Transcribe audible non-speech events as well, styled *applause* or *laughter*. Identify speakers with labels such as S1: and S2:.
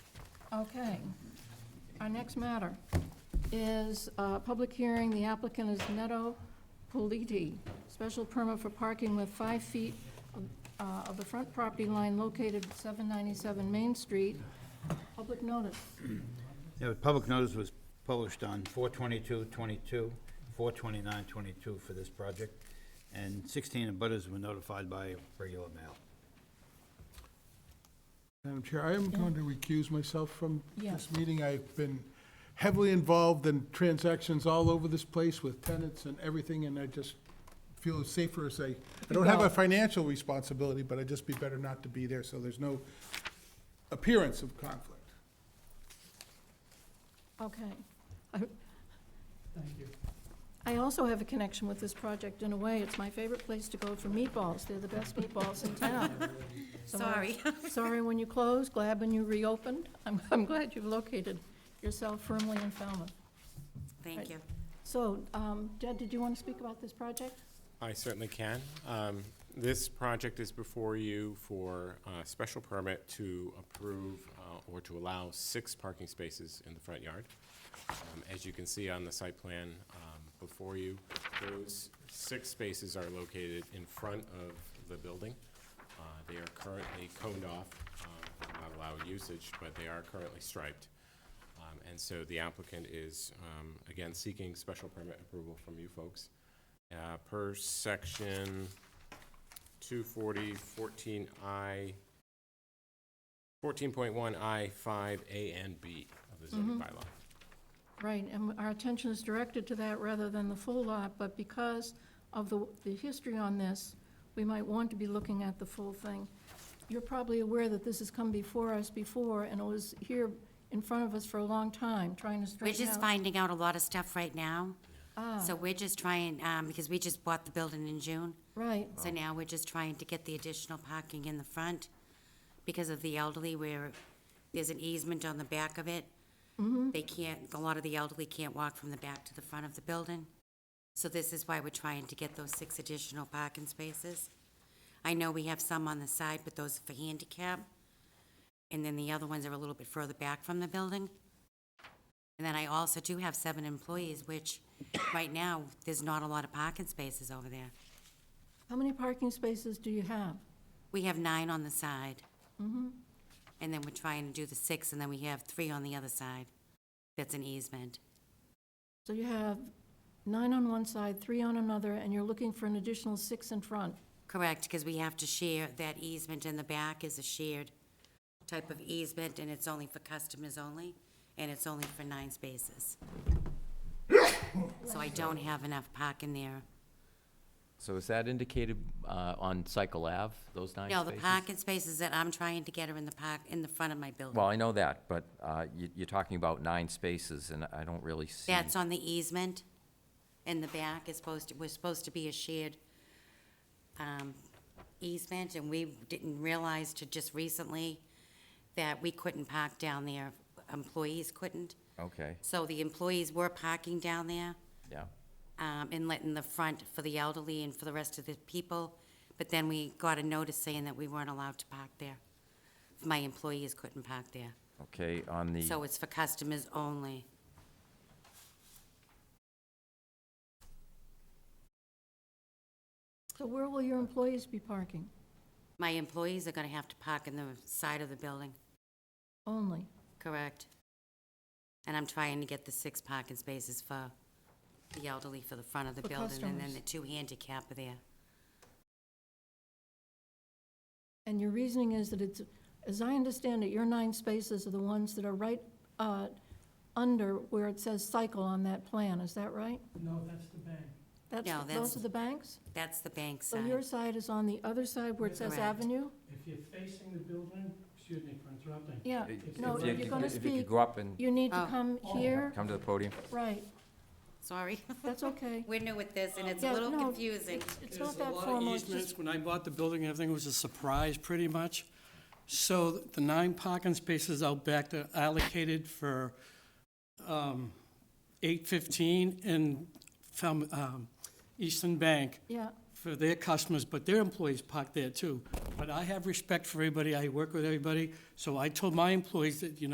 S1: Okay. Our next matter is uh, public hearing. The applicant is Neto Politi. Special permit for parking with five feet of- uh, of the front property line located at 797 Main Street. Public notice.
S2: Yeah, the public notice was published on 4/22/22, 4/29/22 for this project, and 16 abutters were notified by regular mail.
S3: Madam Chair, I am going to recuse myself from
S1: Yes.
S3: this meeting. I've been heavily involved in transactions all over this place with tenants and everything, and I just feel it's safer as I, I don't have a
S1: Well-
S3: financial responsibility, but I'd just be better not to be there, so there's no appearance of conflict.
S1: Okay. Thank you. I also have a connection with this project in a way. It's my favorite place to go for meatballs. They're the best meatballs in town. So I'm
S4: Sorry.
S1: Sorry when you closed, glad when you reopened. I'm, I'm glad you've located yourself firmly in Falmouth.
S4: Thank you.
S1: So, um, Jed, did you want to speak about this project?
S5: I certainly can. Um, This project is before you for a special permit to approve uh, or to allow six parking spaces in the front yard. Um, As you can see on the site plan um, before you, those six spaces are located in front of the building. Uh, They are currently coned off, uh, not allowed usage, but they are currently striped. Um, And so the applicant is, um, again, seeking special permit approval from you folks uh, per section 240, 14I, 14.1I, 5, A and B of the zoning bylaw.
S1: Right, and our attention is directed to that rather than the full lot, but because of the, the history on this, we might want to be looking at the full thing. You're probably aware that this has come before us before, and it was here in front of us for a long time, trying to
S4: We're
S1: straighten out.
S4: just finding out a lot of stuff right now. So we're just trying, um, because we just bought the building in June,
S1: Right,
S4: so now we're just trying to get the additional parking in the front because of the elderly where there's an easement on the back of it. They can't, a lot of the elderly can't walk from the back to the front of the building. So this is why we're trying to get those six additional parking spaces. I know we have some on the side, but those are for handicap. And then the other ones are a little bit further back from the building. And then I also do have seven employees, which right now, there's not a lot of parking spaces over there.
S1: how many parking spaces do you have?
S4: We have nine on the side. And then we're trying to do the six, and then we have three on the other side. That's an easement.
S1: So you have nine on one side, three on another, and you're looking for an additional six in front.
S4: Correct, because we have to share, that easement in the back is a shared type of easement, and it's only for customers only, and it's only for nine spaces. So I don't have enough parking there.
S6: So is that indicated uh, on Cycle Ave, those nine
S4: No,
S6: spaces?
S4: the parking spaces that I'm trying to get are in the park, in the front of my building.
S6: Well, I know that, but uh, you- you're talking about nine spaces, and I don't really see.
S4: That's on the easement in the back, it's supposed to, was supposed to be a shared um, easement, and we didn't realize to just recently that we couldn't park down there, employees couldn't.
S6: Okay,
S4: So the employees were parking down there
S6: yeah.
S4: um, and letting the front for the elderly and for the rest of the people, but then we got a notice saying that we weren't allowed to park there. My employees couldn't park there,
S6: Okay, on the,
S4: so it's for customers only.
S1: So where will your employees be parking
S4: My employees are gonna have to park in the side of the building,
S1: only?
S4: correct? And I'm trying to get the six parking spaces for the elderly for the front of the
S1: For
S4: building, and then
S1: customers.
S4: the two handicap are there.
S1: And your reasoning is that it's, as I understand it, your nine spaces are the ones that are right uh, under where it says cycle on that plan, is that right?
S7: No, that's the bank.
S1: That's-
S4: No, that's-
S1: Those are the banks?
S4: That's the bank
S1: So
S4: side.
S1: your side is on the other side where it says
S4: Correct.
S1: avenue?
S7: If you're facing the building, excuse me for interrupting.
S1: Yeah,
S6: if
S1: no,
S6: if you
S1: if you're
S6: could-
S1: gonna
S6: if you could
S1: speak,
S6: go up and
S1: you need to
S4: Oh.
S1: come here,
S6: come to the podium.
S1: right,
S4: Sorry, *laughs*
S1: that's okay.
S4: we're new at this, and it's
S1: Yeah,
S4: a little
S1: no,
S4: confusing.
S1: it's- It's
S7: There's
S1: not
S7: a
S1: that
S7: lot of
S1: formal, it's
S7: easements.
S1: just,
S7: When I bought the building, everything was a surprise, pretty much. So the nine parking spaces out back that are allocated for um, 815 and from um, Eastern Bank
S1: yeah,
S7: for their customers, but their employees park there too. But I have respect for everybody, I work with everybody, so I told my employees that, you know.